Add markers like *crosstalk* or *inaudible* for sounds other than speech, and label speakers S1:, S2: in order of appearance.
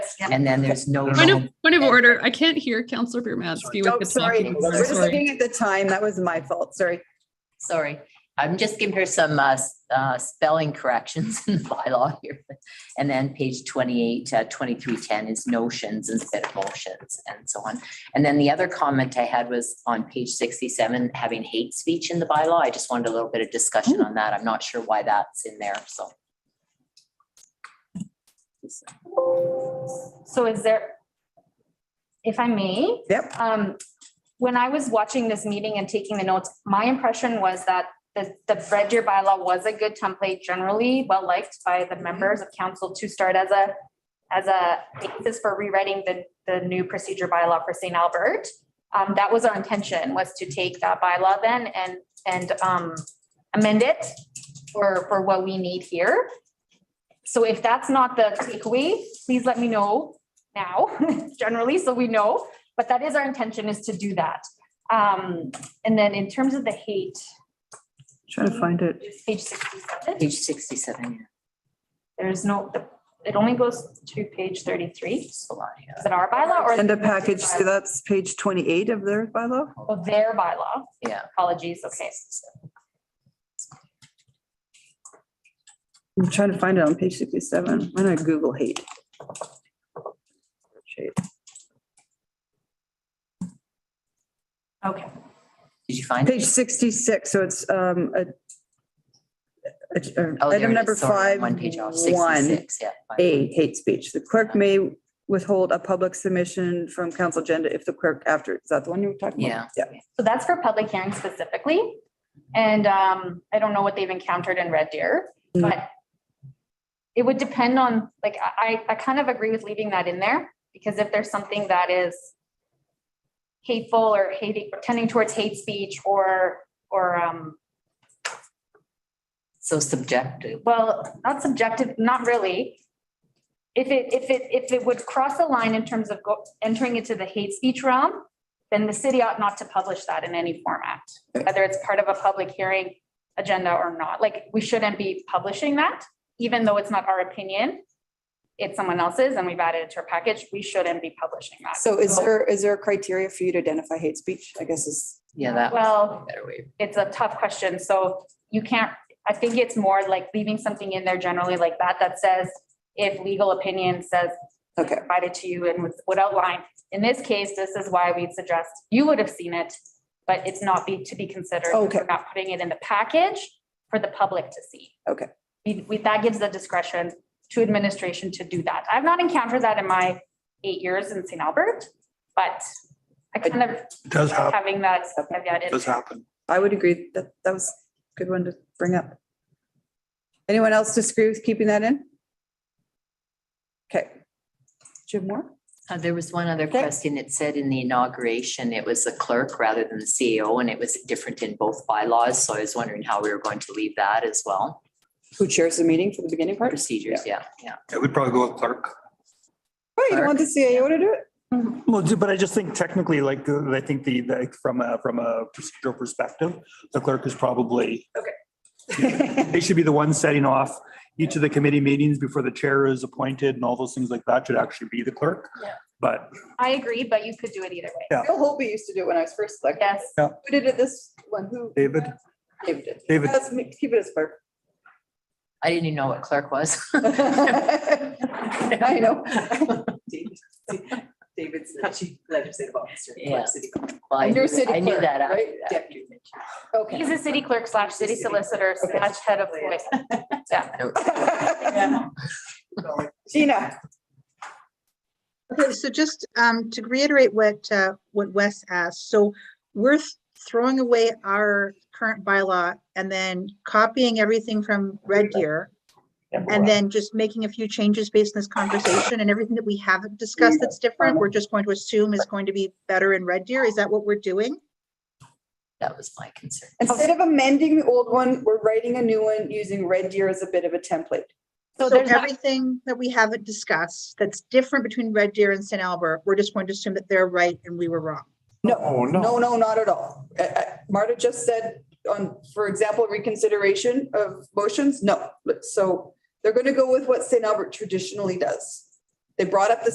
S1: and then there's no.
S2: Point of, point of order, I can't hear Counselor Bermansky with
S3: Oh,
S2: the
S3: sorry.
S2: talking.
S3: We're just
S2: Sorry.
S3: looking at the time. That was my fault. Sorry.
S1: Sorry, I'm just giving her some uh, s- uh, spelling corrections *laughs* in the bylaw here. And then page 28, uh, 2310 is notions instead of motions and so on. And then the other comment I had was on page 67, having hate speech in the bylaw. I just wanted a little bit of discussion on that. I'm not sure why that's in there, so.
S4: So is there, if I may?
S3: Yep.
S4: Um, when I was watching this meeting and taking the notes, my impression was that the, the Red Deer bylaw was a good template generally, well-liked by the members of council to start as a, as a basis for rewriting the, the new procedure bylaw for St. Albert. Um, that was our intention, was to take that bylaw then and, and, um, amend it for, for what we need here. So if that's not the takeaway, please let me know now, *laughs* generally, so we know. But that is our intention is to do that. Um, and then in terms of the hate,
S3: Trying to find it.
S4: it's page sixty-seven,
S1: Page 67, yeah,
S4: there's no, the- it only goes to page thirty-three.
S1: it's a lot, yeah.
S4: Is it our bylaw or?
S3: And a package, so that's page twenty-eight of their bylaw.
S4: Oh, their bylaw.
S1: Yeah.
S4: Apologies, okay.
S3: I'm trying to find it on page sixty-seven. Why not Google hate? Shit.
S4: Okay,
S1: Did you find? it?
S3: Page sixty-six, so it's, um, a a- a-
S1: Oh, there
S3: item
S1: it is,
S3: number
S1: sorry,
S3: five,
S1: I'm One page off,
S3: one.
S1: 66, yeah. fine.
S3: A, hate speech. The clerk may withhold a public submission from council agenda if the clerk after, is that the one you were talking about? Yeah.
S4: so that's for public hearing specifically. And, um, I don't know what they've encountered in Red Deer,
S3: Mm.
S4: but it would depend on, like, I, I I kind of agree with leaving that in there, because if there's something that is hateful or hating, tending towards hate speech or, or, um,
S1: So subjective.
S4: well, not subjective, not really. If it, if it, if it would cross a line in terms of go- entering into the hate speech realm, then the city ought not to publish that in any format, whether it's part of a public hearing agenda or not. Like, we shouldn't be publishing that, even though it's not our opinion. It's someone else's and we've added it to our package. We shouldn't be publishing that.
S5: So is there, is there a criteria for you to identify hate speech? I guess is,
S1: Yeah, that was
S4: Well,
S1: a better way.
S4: it's a tough question, so you can't, I think it's more like leaving something in there generally like that, that says if legal opinion says
S5: okay,
S4: provided to you and would- would outline, in this case, this is why we'd suggest, you would have seen it, but it's not be, to be considered.
S5: Okay.
S4: We're Not putting it in the package for the public to see.
S5: Okay.
S4: We, we, that gives the discretion to administration to do that. I've not encountered that in my eight years in St. Albert, but I kind of,
S6: It does happen,
S4: having that, I've got
S6: It
S4: it.
S6: does happen.
S3: I would agree. That, that was a good one to bring up. Anyone else disagree with keeping that in? Okay. Jim Moore?
S1: Uh, there was one other
S3: Okay.
S1: question. It said in the inauguration, it was the clerk rather than the CEO, and it was different in both bylaws. So I was wondering how we were going to leave that as well.
S5: who chairs the meeting for the beginning part?
S1: Procedures, yeah, yeah.
S6: It would probably go with clerk.
S3: Oh, you don't want the CAO to do it?
S7: Well, ju- but I just think technically, like, uh, I think the, like, from a, from a procedural perspective, the clerk is probably. Okay. *laughs* They should be the one setting off each of the committee meetings before the chair is appointed and all those things like that should actually be the clerk.
S4: Yeah.
S7: But
S4: I agree, but you could do it either way.
S3: Bill Holby used to do it when I was first elected.
S4: Yes.
S3: Who did it this one? Who?
S7: David,
S3: David did.
S7: David,
S3: Let's make- keep it as
S5: *laughs*
S3: clerk.
S1: I didn't even know what clerk was. *laughs*
S3: I
S5: *laughs*
S3: know.
S8: David's the chief legislative officer. for
S1: Yeah.
S8: City.
S1: Well, I
S3: And you're
S1: knew-
S3: city
S1: I knew
S3: clerk,
S1: that. after
S3: right?
S1: that.
S3: *laughs*
S8: Deputy.
S3: Okay.
S4: He's a city clerk slash city solicitor slash head of voice.
S3: Gina?
S9: Okay, so just um, to reiterate what, uh, what Wes asked, so we're th- throwing away our current bylaw and then copying everything from Red Deer. And then just making a few changes based on this conversation and everything that we haven't discussed that's different, we're just going to assume is going to be better in Red Deer. Is that what we're doing?
S1: That was my concern.
S3: Instead of amending the old one, we're writing a new one using Red Deer as a bit of a template.
S4: So
S9: So
S4: there's not-
S9: everything that we haven't discussed that's different between Red Deer and St. Albert, we're just going to assume that they're right and we were wrong.
S3: No,
S2: Oh,
S3: no, no, not at all. Uh, uh, Marta just said on, for example, reconsideration of motions, no. But So they're going to go with what St. Albert traditionally does. They brought up the